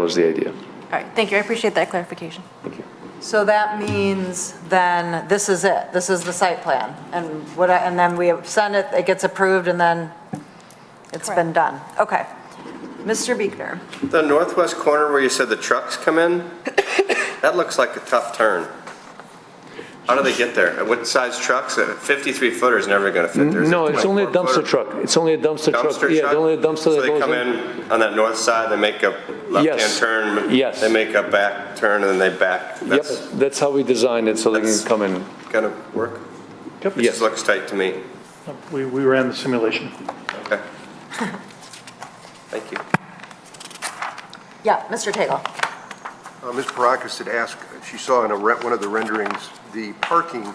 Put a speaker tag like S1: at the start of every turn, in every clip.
S1: was the idea.
S2: All right, thank you, I appreciate that clarification.
S3: So that means then, this is it, this is the site plan, and what, I- and then we send it, it gets approved, and then it's been
S2: Correct.
S3: done. Okay. Mr. Beekner?
S4: The northwest corner where you said the trucks come in, that looks like a tough turn. How do they get there? What size trucks? A 53 footer is never going to fit there.
S1: No, it's only a dumpster
S4: 24
S1: truck. It's only a dumpster truck.
S4: Dumpster truck?
S1: Yeah, only a dumpster
S4: So
S1: that
S4: they
S1: goes
S4: come
S1: in.
S4: in on that north side, they make a left-hand
S1: Yes.
S4: turn?
S1: Yes.
S4: They make a back turn and then they back?
S1: Yep,
S4: That's
S1: that's how we designed it, so they can
S4: That's-
S1: come in.
S4: going to work? It
S1: Yes.
S4: just looks tight to me.
S5: We, we ran the simulation.
S4: Okay. Thank you.
S3: Yeah, Mr. Tagle?
S6: Uh, Ms. Parakas had asked, if she saw in a, re- one of the renderings, the parking,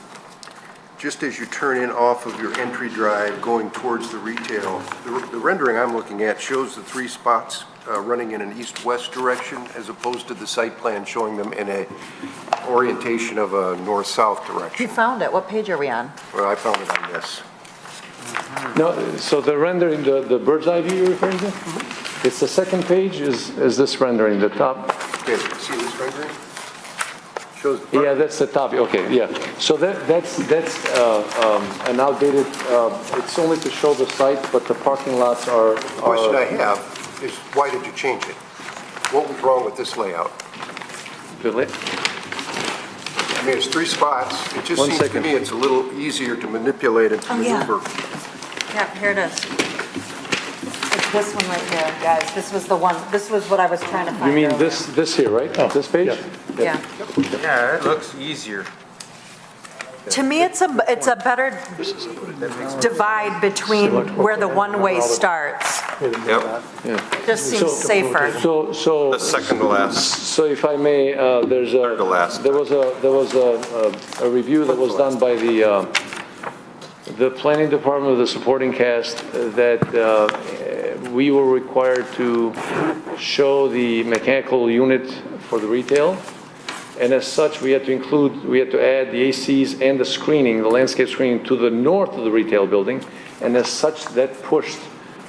S6: just as you turn in off of your entry drive going towards the retail, the r- the rendering I'm looking at shows the three spots uh, running in an east-west direction as opposed to the site plan showing them in a orientation of a north-south
S3: You
S6: direction.
S3: found it, what page are we on?
S6: Well, I found it on this.
S1: No, so the rendering, the, the bird's eye view you're referring to? It's the second page is, is this rendering, the top?
S6: Okay, see this rendering? Shows the
S1: Yeah,
S6: parking.
S1: that's the top, okay, yeah. So that, that's, that's, uh, um, an outdated, uh, it's only to show the site, but the parking lots are,
S6: Question I
S1: are,
S6: have is, why did you change it? What was wrong with this layout? I mean, it's three spots. It just
S1: One
S6: seems to
S1: second.
S6: me it's a little easier to manipulate and to
S3: Oh, yeah.
S6: maneuver.
S3: Yeah, here it is. It's this one right here, guys, this was the one, this was what I was trying to find.
S1: you mean
S3: earlier.
S1: this, this here, right?
S5: Oh,
S1: This page?
S5: yeah.
S3: Yeah.
S4: Yeah, it looks easier.
S3: To me, it's a, it's a better divide between where the one-way starts.
S4: Yep,
S3: Just seems safer.
S1: So, so.
S4: the second to last.
S1: So if I may, uh, there's a.
S4: Third to last.
S1: There was a, there was a, a a review that was done by the, uh, the planning department of the supporting cast uh, that uh, we were required to show the mechanical unit for the retail. And as such, we had to include, we had to add the ACs and the screening, the landscape screening to the north of the retail building. And as such, that pushed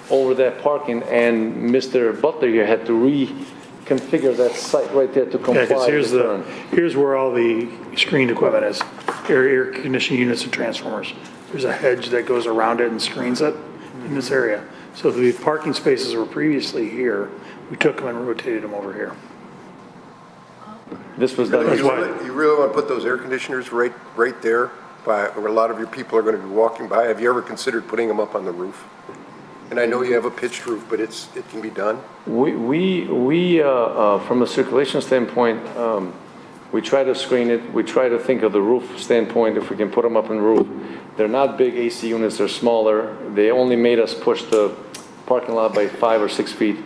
S1: over that parking and Mr. Butler here had to reconfigure that site right there to comply
S5: Yeah, because
S1: with
S5: here's
S1: the
S5: the,
S1: turn.
S5: here's where all the screened equipment is, air, air conditioning units and transformers. There's a hedge that goes around it and screens it in this area. So the parking spaces were previously here, we took them and rotated them over here.
S1: This was done.
S6: You
S5: That's why-
S6: really- you really want to put those air conditioners right, right there by, where a lot of your people are going to be walking by? Have you ever considered putting them up on the roof? And I know you have a pitched roof, but it's, it can be done.
S1: We, we, we, uh, uh, from a circulation standpoint, um, we try to screen it, we try to think of the roof standpoint, if we can put them up in roof. They're not big AC units, they're smaller, they only made us push the parking lot by five or six feet.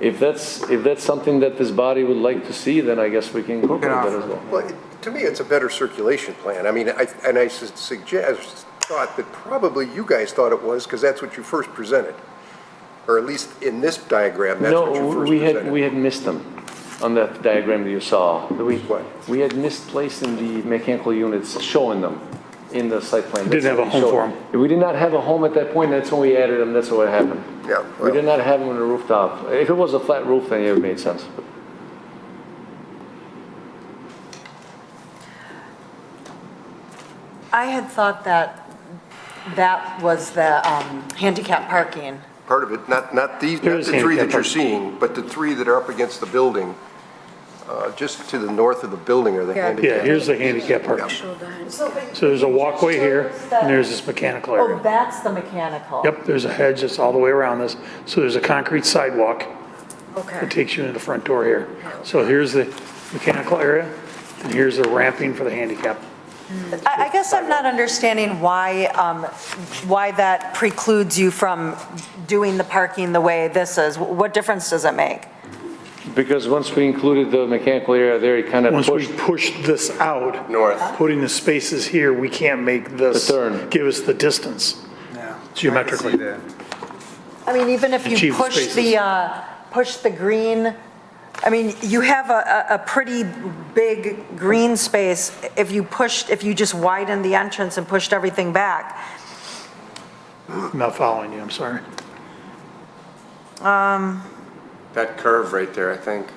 S1: If that's, if that's something that this body would like to see, then I guess we can incorporate that as well.
S6: Well, it- to me, it's a better circulation plan. I mean, I, and I sus- suggest, thought that probably you guys thought it was, because that's what you first presented. Or at least in this diagram, that's what you
S1: No,
S6: first
S1: we had,
S6: presented.
S1: we had missed them on that diagram that you saw. We,
S6: What?
S1: we had misplaced in the mechanical units, showing them in the site plan.
S5: Didn't have a home for 'em.
S1: them. We did not have a home at that point, that's when we added them, that's what happened.
S6: Yeah,
S1: We did
S6: well-
S1: not have them on the rooftop. If it was a flat roof, then it would make sense.
S3: I had thought that that was the um, handicap parking.
S6: Part of it, not, not these,
S5: There
S6: not
S5: is
S6: the three that
S5: handicap
S6: you're
S5: parking.
S6: seeing, but the three that are up against the building, uh, just to the north of the building are the
S2: Yeah.
S6: handicap.
S5: Yeah, here's the handicap parking. So there's a walkway here, and there's this mechanical
S3: Oh,
S5: area.
S3: that's the mechanical.
S5: Yep, there's a hedge that's all the way around this, so there's a concrete sidewalk that
S3: Okay.
S5: takes you into the front door here. So here's the mechanical area, and here's the ramping for the handicap.
S3: I, I guess I'm not understanding why, um, why that precludes you from doing the parking the way this is. What difference does it make?
S1: Because once we included the mechanical area there, it kind of
S5: Once we
S1: pushed.
S5: push this out.
S4: North.
S5: Putting the spaces here, we can't make this.
S1: The turn.
S5: Give us the distance geometrically.
S3: I mean, even if you
S5: Achieve the
S3: push
S5: spaces.
S3: the, uh, push the green, I mean, you have a, a a pretty big green space. If you pushed, if you just widened the entrance and pushed everything back,
S5: I'm not following you, I'm sorry.
S4: that curve right there, I think.